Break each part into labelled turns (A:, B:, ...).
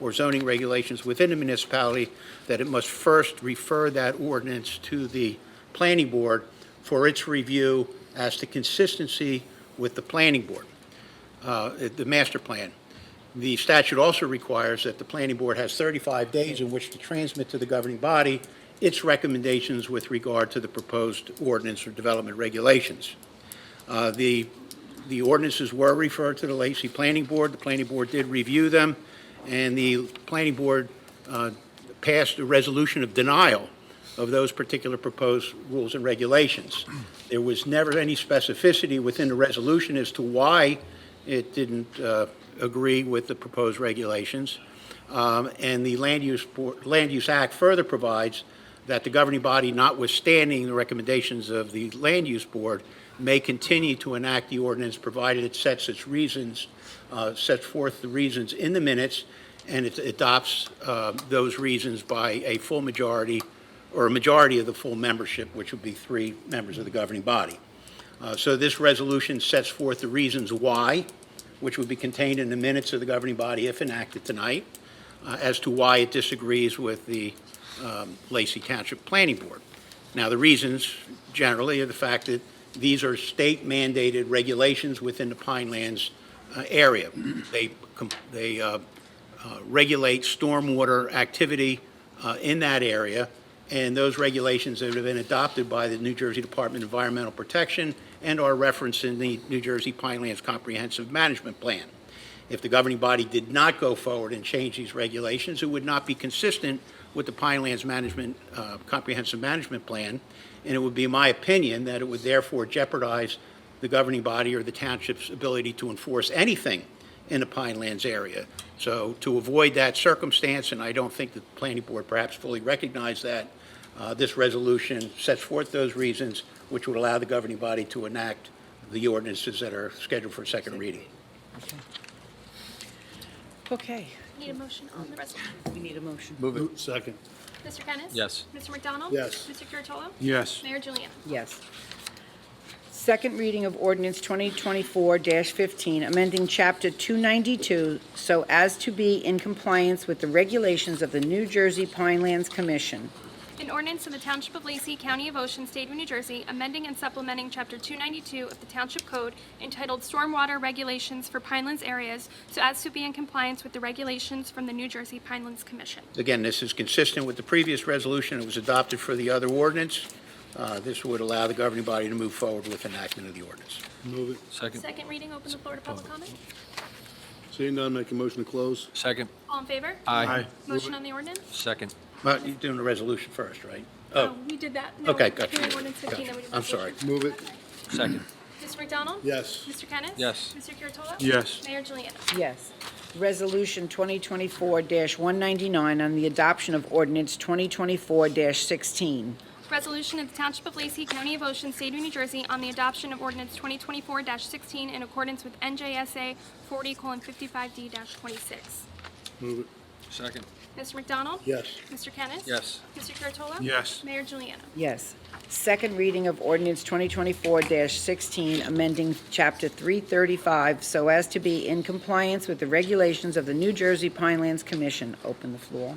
A: or zoning regulations within the municipality, that it must first refer that ordinance to the planning board for its review as to consistency with the planning board, uh, the master plan. The statute also requires that the planning board has 35 days in which to transmit to the governing body its recommendations with regard to the proposed ordinance or development regulations. Uh, The, the ordinances were referred to the Lacey Planning Board. The planning board did review them, and the planning board uh, passed a resolution of denial of those particular proposed rules and regulations. There was never any specificity within the resolution as to why it didn't uh, agree with the proposed regulations. Um, And the Land Use, Board- Land Use Act further provides that the governing body, notwithstanding the recommendations of the Land Use Board, may continue to enact the ordinance, provided it sets its reasons, uh, sets forth the reasons in the minutes, and it adopts uh, those reasons by a full majority, or a majority of the full membership, which would be three members of the governing body. Uh, So this resolution sets forth the reasons why, which would be contained in the minutes of the governing body if enacted tonight, uh, as to why it disagrees with the um, Lacey Township Planning Board. Now, the reasons generally are the fact that these are state mandated regulations within the Pinelands uh, area. They, com- they uh, uh, regulate stormwater activity uh, in that area, and those regulations that have been adopted by the New Jersey Department of Environmental Protection and are referenced in the New Jersey Pinelands Comprehensive Management Plan. If the governing body did not go forward and change these regulations, it would not be consistent with the Pinelands Management, uh, Comprehensive Management Plan, and it would be my opinion that it would therefore jeopardize the governing body or the township's ability to enforce anything in the Pinelands area. So to avoid that circumstance, and I don't think the planning board perhaps fully recognized that, uh, this resolution sets forth those reasons which would allow the governing body to enact the ordinances that are scheduled for second reading.
B: Okay,
C: Need a motion on the resolution.
B: we need a motion.
D: Move it. Second.
C: Mr. Kennis?
E: Yes.
C: Mr. McDonald?
D: Yes.
C: Mr. Curatolo?
D: Yes.
C: Mayor Juliana?
B: Yes. Second reading of ordinance 2024-15, amending Chapter 292 so as to be in compliance with the regulations of the New Jersey Pinelands Commission.
C: An ordinance of the Township of Lacey, County of Ocean, State of New Jersey, amending and supplementing Chapter 292 of the Township Code entitled Stormwater Regulations for Pinelands Areas so as to be in compliance with the regulations from the New Jersey Pinelands Commission.
A: Again, this is consistent with the previous resolution that was adopted for the other ordinance. Uh, This would allow the governing body to move forward with enactment of the ordinance.
D: Move it.
E: Second.
C: Second reading, open the floor to public comment.
D: Seeing none, make a motion to close.
E: Second.
C: All in favor?
E: Aye.
C: Motion on the ordinance?
E: Second.
A: But you're doing the resolution first, right?
C: Oh, We did that. No,
A: Okay,
C: we're
A: gotcha.
C: doing ordinance 15,
A: Gotcha.
C: then we do
A: I'm sorry.
C: resolution.
D: Move it.
E: Second.
C: Mr. McDonald?
D: Yes.
C: Mr. Kennis?
E: Yes.
C: Mr. Curatolo?
D: Yes.
C: Mayor Juliana?
B: Yes. Resolution 2024-199 on the adoption of ordinance 2024-16.
C: Resolution of the Township of Lacey, County of Ocean, State of New Jersey, on the adoption of ordinance 2024-16 in accordance with NJSA 40:55D-26.
D: Move it.
E: Second.
C: Mr. McDonald?
D: Yes.
C: Mr. Kennis?
E: Yes.
C: Mr. Curatolo?
D: Yes.
C: Mayor Juliana?
B: Yes. Second reading of ordinance 2024-16, amending Chapter 335 so as to be in compliance with the regulations of the New Jersey Pinelands Commission. Open the floor.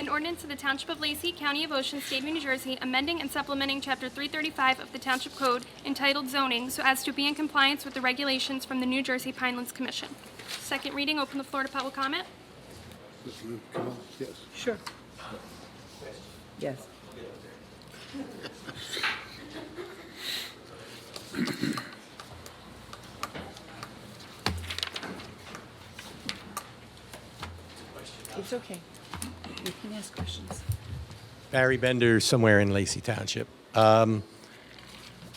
C: An ordinance of the Township of Lacey, County of Ocean, State of New Jersey, amending and supplementing Chapter 335 of the Township Code entitled zoning so as to be in compliance with the regulations from the New Jersey Pinelands Commission. Second reading, open the floor to public comment.
D: Come on. Yes.
B: Sure. Yes. It's okay. You can ask questions.
F: Barry Bender, somewhere in Lacey Township. Um,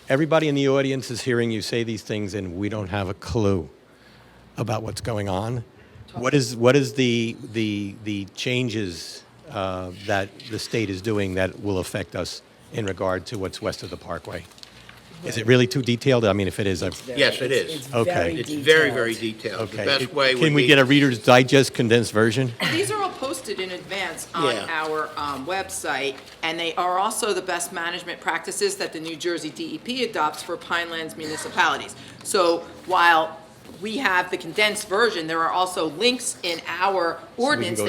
F: everybody in the audience is hearing you say these things, and we don't have a clue about what's going on. What is what is the the the changes uh, that the state is doing that will affect us in regard to what's west of the Parkway? Is it really too detailed? I mean, if it is, I,
A: Yes, it is.
B: It's
F: Okay.
B: very
A: It's very, very detailed.
B: detailed.
A: The
F: okay.
A: best way would be...
F: Can we get a Reader's Digest condensed version?
G: These are all posted in advance on
A: Yeah.
G: our um, website, and they are also the best management practices that the New Jersey DEP adopts for Pinelands municipalities. So while we have the condensed version, there are also links in our ordinance
F: go